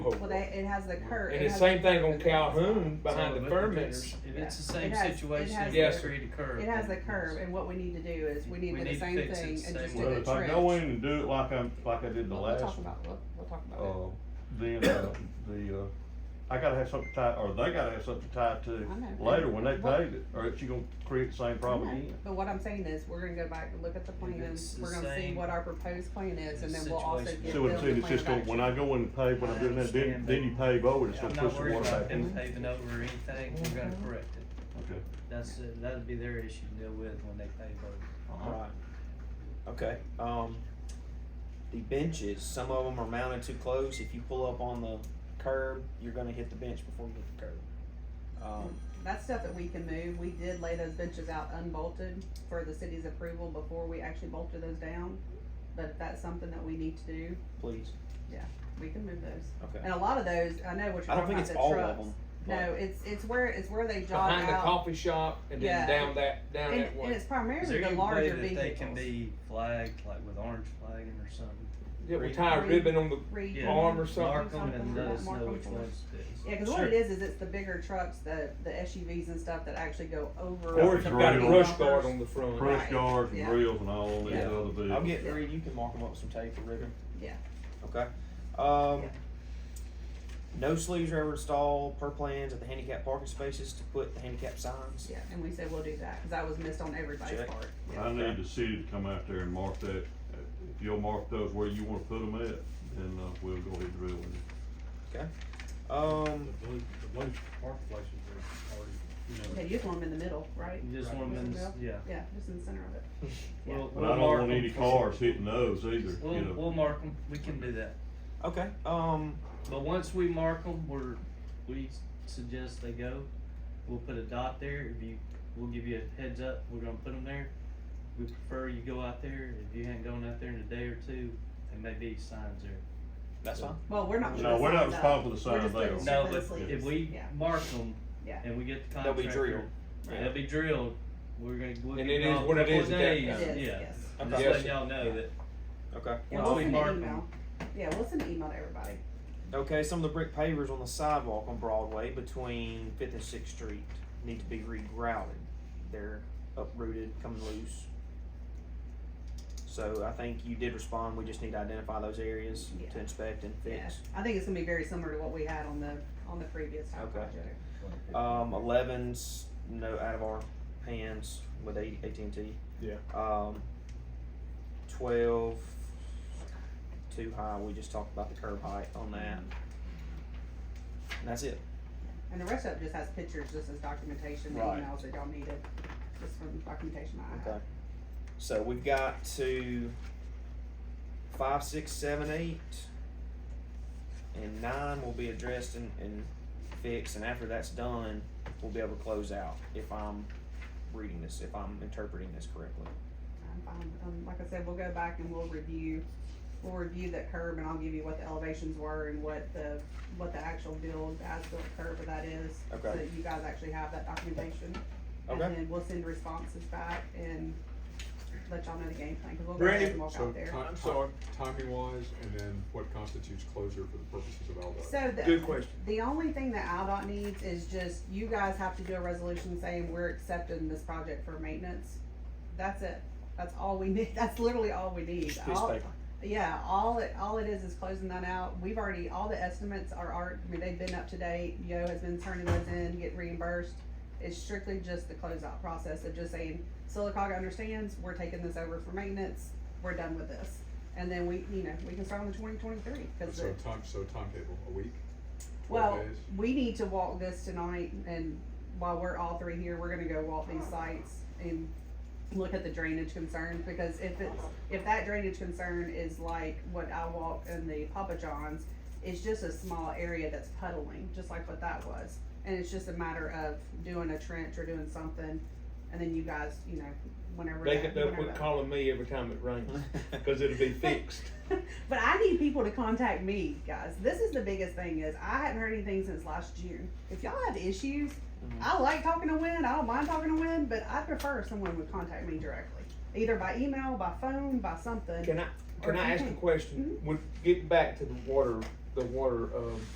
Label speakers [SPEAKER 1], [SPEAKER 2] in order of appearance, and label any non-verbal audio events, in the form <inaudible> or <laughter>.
[SPEAKER 1] it has the curve.
[SPEAKER 2] And the same thing on Calhoun
[SPEAKER 3] So
[SPEAKER 2] behind the
[SPEAKER 3] look at this.
[SPEAKER 2] fermenters.
[SPEAKER 3] If
[SPEAKER 1] Yeah.
[SPEAKER 3] it's the same
[SPEAKER 1] It has- it
[SPEAKER 3] situation,
[SPEAKER 1] has
[SPEAKER 3] if
[SPEAKER 2] the-
[SPEAKER 3] we create a curve.
[SPEAKER 1] It has the curve, and what we need to do is we need
[SPEAKER 3] We
[SPEAKER 1] to do the
[SPEAKER 3] need to
[SPEAKER 1] same
[SPEAKER 3] fix it
[SPEAKER 1] thing
[SPEAKER 3] the
[SPEAKER 1] and
[SPEAKER 3] same
[SPEAKER 1] just do
[SPEAKER 3] way.
[SPEAKER 4] Well,
[SPEAKER 1] the
[SPEAKER 4] if I go in
[SPEAKER 1] trench.
[SPEAKER 4] and do it like I'm, like I did the
[SPEAKER 1] We'll
[SPEAKER 4] last
[SPEAKER 1] talk
[SPEAKER 4] one,
[SPEAKER 1] about, we'll, we'll talk about it.
[SPEAKER 4] uh, then, uh, the, uh, I gotta have something tied, or they gotta have something tied to
[SPEAKER 1] I know.
[SPEAKER 4] later when they
[SPEAKER 1] Well-
[SPEAKER 4] pave it, or it's you gonna create the same problem
[SPEAKER 1] I know.
[SPEAKER 4] again.
[SPEAKER 1] But what I'm saying is, we're gonna go back and look at the plan,
[SPEAKER 3] it's the
[SPEAKER 1] we're gonna see
[SPEAKER 3] same-
[SPEAKER 1] what our proposed plan is, and then we'll also
[SPEAKER 3] situation.
[SPEAKER 1] get
[SPEAKER 4] See what I'm
[SPEAKER 1] Bill
[SPEAKER 4] saying,
[SPEAKER 1] the
[SPEAKER 4] it's
[SPEAKER 1] plan
[SPEAKER 4] just
[SPEAKER 1] of
[SPEAKER 4] gonna, when I go in and pave, when I'm doing that, then,
[SPEAKER 3] Understand,
[SPEAKER 4] then you pave over, it, it's
[SPEAKER 3] I'm
[SPEAKER 4] gonna
[SPEAKER 3] not
[SPEAKER 4] push the
[SPEAKER 3] worried
[SPEAKER 4] water
[SPEAKER 3] about
[SPEAKER 4] back in.
[SPEAKER 3] them paving over or anything, we're gonna
[SPEAKER 1] Mm-hmm.
[SPEAKER 3] correct it.
[SPEAKER 4] Okay.
[SPEAKER 3] That's, uh, that'd be their issue to deal with when they pave over.
[SPEAKER 4] Uh-huh.
[SPEAKER 5] Alright, okay, um, the benches, some of them are mounted too close, if you pull up on the curb, you're gonna hit the bench before you hit the curb. Um,
[SPEAKER 1] That's stuff that we can move. We did lay those benches out unbolted for the city's approval before we actually bolted those down. But if that's something that we need to do,
[SPEAKER 5] please,
[SPEAKER 1] we can move those.
[SPEAKER 5] okay,
[SPEAKER 1] And a lot of those, I know what
[SPEAKER 5] I don't
[SPEAKER 1] you're talking
[SPEAKER 5] think
[SPEAKER 1] about,
[SPEAKER 5] it's
[SPEAKER 1] the
[SPEAKER 5] all of
[SPEAKER 1] trucks.
[SPEAKER 5] them,
[SPEAKER 1] No,
[SPEAKER 5] but,
[SPEAKER 1] it's, it's where, it's where they jog
[SPEAKER 2] Behind the
[SPEAKER 1] out.
[SPEAKER 2] coffee shop and
[SPEAKER 1] Yeah.
[SPEAKER 2] then down that, down
[SPEAKER 1] And,
[SPEAKER 2] that
[SPEAKER 1] and
[SPEAKER 2] way.
[SPEAKER 1] it's
[SPEAKER 3] Is
[SPEAKER 1] primarily
[SPEAKER 3] there
[SPEAKER 1] the
[SPEAKER 3] any way
[SPEAKER 1] larger
[SPEAKER 3] that they can
[SPEAKER 1] vehicles.
[SPEAKER 3] be flagged, like with orange flagging or something?
[SPEAKER 2] Yeah, we tie a ribbon on the,
[SPEAKER 1] Read-
[SPEAKER 3] Yeah.
[SPEAKER 2] Arm or something.
[SPEAKER 3] Mark them and
[SPEAKER 1] Something
[SPEAKER 3] let us
[SPEAKER 1] like
[SPEAKER 3] know
[SPEAKER 1] mark
[SPEAKER 3] which
[SPEAKER 1] them.
[SPEAKER 3] ones it is.
[SPEAKER 1] Yeah, cause what it is, is it's the bigger trucks, the, the SUVs and stuff that actually go over.
[SPEAKER 2] or if you've got a
[SPEAKER 4] Right.
[SPEAKER 2] brush guard on the front.
[SPEAKER 4] Press
[SPEAKER 1] Right.
[SPEAKER 4] guards and
[SPEAKER 1] Yeah.
[SPEAKER 4] grills and all these
[SPEAKER 5] Yeah.
[SPEAKER 4] other vehicles.
[SPEAKER 5] I'll get Reed, you can mark them up with some tape or ribbon.
[SPEAKER 1] Yeah.
[SPEAKER 5] Okay, um,
[SPEAKER 1] Yeah.
[SPEAKER 5] no sleeves are ever installed per plans at the handicap parking spaces to put the handicap signs.
[SPEAKER 1] Yeah, and we said we'll do that, cause that was missed on everybody's
[SPEAKER 5] Check.
[SPEAKER 1] part. Yeah.
[SPEAKER 4] I need the city to come out there and mark that, if you'll mark those where you wanna put them at, then, uh, we'll go ahead and drill it.
[SPEAKER 5] Um,
[SPEAKER 6] The blue, the blue park places are already, you know.
[SPEAKER 1] They use one in the middle, right?
[SPEAKER 3] You just want them in, the- yeah.
[SPEAKER 1] Yeah, just in the center of it.
[SPEAKER 3] <laughs>
[SPEAKER 1] Yeah.
[SPEAKER 3] We'll-
[SPEAKER 4] But
[SPEAKER 3] we'll
[SPEAKER 4] I don't
[SPEAKER 3] mark
[SPEAKER 4] want
[SPEAKER 3] them
[SPEAKER 4] any
[SPEAKER 3] for-
[SPEAKER 4] cars hitting those either, you
[SPEAKER 3] We'll,
[SPEAKER 4] know.
[SPEAKER 3] we'll mark them, we can do that.
[SPEAKER 5] okay, um,
[SPEAKER 3] But once we mark them, we're, we suggest they go, we'll put a dot there, if you, we'll give you a heads up, we're gonna put them there. We prefer you go out there, if you hadn't gone out there in a day or two, there may be signs there.
[SPEAKER 5] that's fine.
[SPEAKER 1] Well, we're not.
[SPEAKER 4] No, we're not responsible for the
[SPEAKER 1] We're
[SPEAKER 4] sign
[SPEAKER 1] just
[SPEAKER 4] there.
[SPEAKER 1] putting-
[SPEAKER 3] No,
[SPEAKER 1] Strip and
[SPEAKER 3] but
[SPEAKER 1] sleeves,
[SPEAKER 3] if we
[SPEAKER 1] yeah.
[SPEAKER 3] mark them,
[SPEAKER 1] Yeah.
[SPEAKER 3] and we get the
[SPEAKER 5] They'll
[SPEAKER 3] contractor.
[SPEAKER 5] be drilled.
[SPEAKER 3] Yeah, They'll be drilled, we're gonna. we'll
[SPEAKER 2] And
[SPEAKER 3] give
[SPEAKER 2] it is
[SPEAKER 3] y'all a
[SPEAKER 2] what it
[SPEAKER 3] couple
[SPEAKER 2] is
[SPEAKER 3] of
[SPEAKER 2] at that
[SPEAKER 3] days.
[SPEAKER 1] It
[SPEAKER 2] time.
[SPEAKER 1] is,
[SPEAKER 3] Yeah.
[SPEAKER 1] yes.
[SPEAKER 3] I'm
[SPEAKER 5] Okay.
[SPEAKER 3] just letting y'all know that.
[SPEAKER 5] Okay.
[SPEAKER 1] Yeah,
[SPEAKER 3] Well,
[SPEAKER 1] we'll
[SPEAKER 3] we
[SPEAKER 1] send an
[SPEAKER 3] mark 'em.
[SPEAKER 1] email. Yeah, we'll send an email to everybody.
[SPEAKER 5] Okay, some of the brick pavers on the sidewalk on Broadway between Fifth and Sixth Street need to be regrouted. They're uprooted, coming loose. So I think you did respond, we just need to identify those areas
[SPEAKER 1] Yeah.
[SPEAKER 5] to inspect and fix.
[SPEAKER 1] I think it's gonna be very similar to what we had on the, on the previous town
[SPEAKER 5] Okay.
[SPEAKER 1] project.
[SPEAKER 5] Um, elevens, no, out of our hands with A- AT&T.
[SPEAKER 2] Yeah.
[SPEAKER 5] Um, twelve, too high, we just talked about the curb height on that. And that's it.
[SPEAKER 1] And the rest of it just has pictures, just as documentation, the
[SPEAKER 5] Right.
[SPEAKER 1] emails that y'all needed, just from documentation I
[SPEAKER 5] Okay.
[SPEAKER 1] have.
[SPEAKER 5] So we've got to five, six, seven, eight, and nine will be addressed and, and fixed, and after that's done, we'll be able to close out if I'm reading this, if I'm interpreting this correctly.
[SPEAKER 1] I'm fine. Um, like I said, we'll go back and we'll review, we'll review that curb and I'll give you what the elevations were and what the, what the actual build, as-built curb of that is. So
[SPEAKER 5] Okay.
[SPEAKER 1] that you guys actually have that documentation.
[SPEAKER 5] Okay.
[SPEAKER 1] And then we'll send responses back and let y'all know the game plan, cause we'll go ahead
[SPEAKER 6] Brandy,
[SPEAKER 1] and walk
[SPEAKER 7] So,
[SPEAKER 1] out there.
[SPEAKER 7] ti- so timing wise, and then what constitutes closure for the purposes of
[SPEAKER 1] So
[SPEAKER 7] LDOT?
[SPEAKER 1] the,
[SPEAKER 6] Good question.
[SPEAKER 1] the only thing that Aldot needs is just, you guys have to do a resolution saying we're accepting this project for maintenance. That's it. That's all we <laughs> need. That's literally all we need.
[SPEAKER 5] Piece
[SPEAKER 1] All-
[SPEAKER 5] of paper.
[SPEAKER 1] Yeah, all it, all it is is closing that out. We've already, all the estimates are, are, I mean, they've been up to date. Yo has been turning those in, get reimbursed. It's strictly just the closeout process of just saying, Silicaga understands, we're taking this over for maintenance, we're done with this. And then we, you know, we can start on the twenty twenty-three, cause
[SPEAKER 7] So
[SPEAKER 1] the-
[SPEAKER 7] time, so timetable, a week?
[SPEAKER 1] well,
[SPEAKER 7] Twelve days?
[SPEAKER 1] we need to walk this tonight, and while we're all three here, we're gonna go walk these sites and look at the drainage concerns, because if it's, if that drainage concern is like what I walked in the Papa John's, it's just a small area that's puddling, just like what that was, and it's just a matter of doing a trench or doing something, and then you guys, you know, whenever.
[SPEAKER 2] They
[SPEAKER 1] that-
[SPEAKER 2] could, they'll
[SPEAKER 1] whenever
[SPEAKER 2] quit
[SPEAKER 1] that-
[SPEAKER 2] calling me every time it
[SPEAKER 7] <laughs>
[SPEAKER 2] rains, cause it'll be fixed.
[SPEAKER 1] <laughs> but I need people to contact me, guys. This is the biggest thing is I hadn't heard anything since last June. If y'all have issues,
[SPEAKER 5] Mhm.
[SPEAKER 1] I like talking to Win. I don't mind talking to Win, but I prefer someone would contact me directly, either by email, by phone, by something.
[SPEAKER 2] Can I,
[SPEAKER 1] Or Hmm?
[SPEAKER 2] can
[SPEAKER 1] <laughs>
[SPEAKER 2] I
[SPEAKER 1] you
[SPEAKER 2] ask a
[SPEAKER 1] can-
[SPEAKER 2] question? Would, get back to the water, the water, um,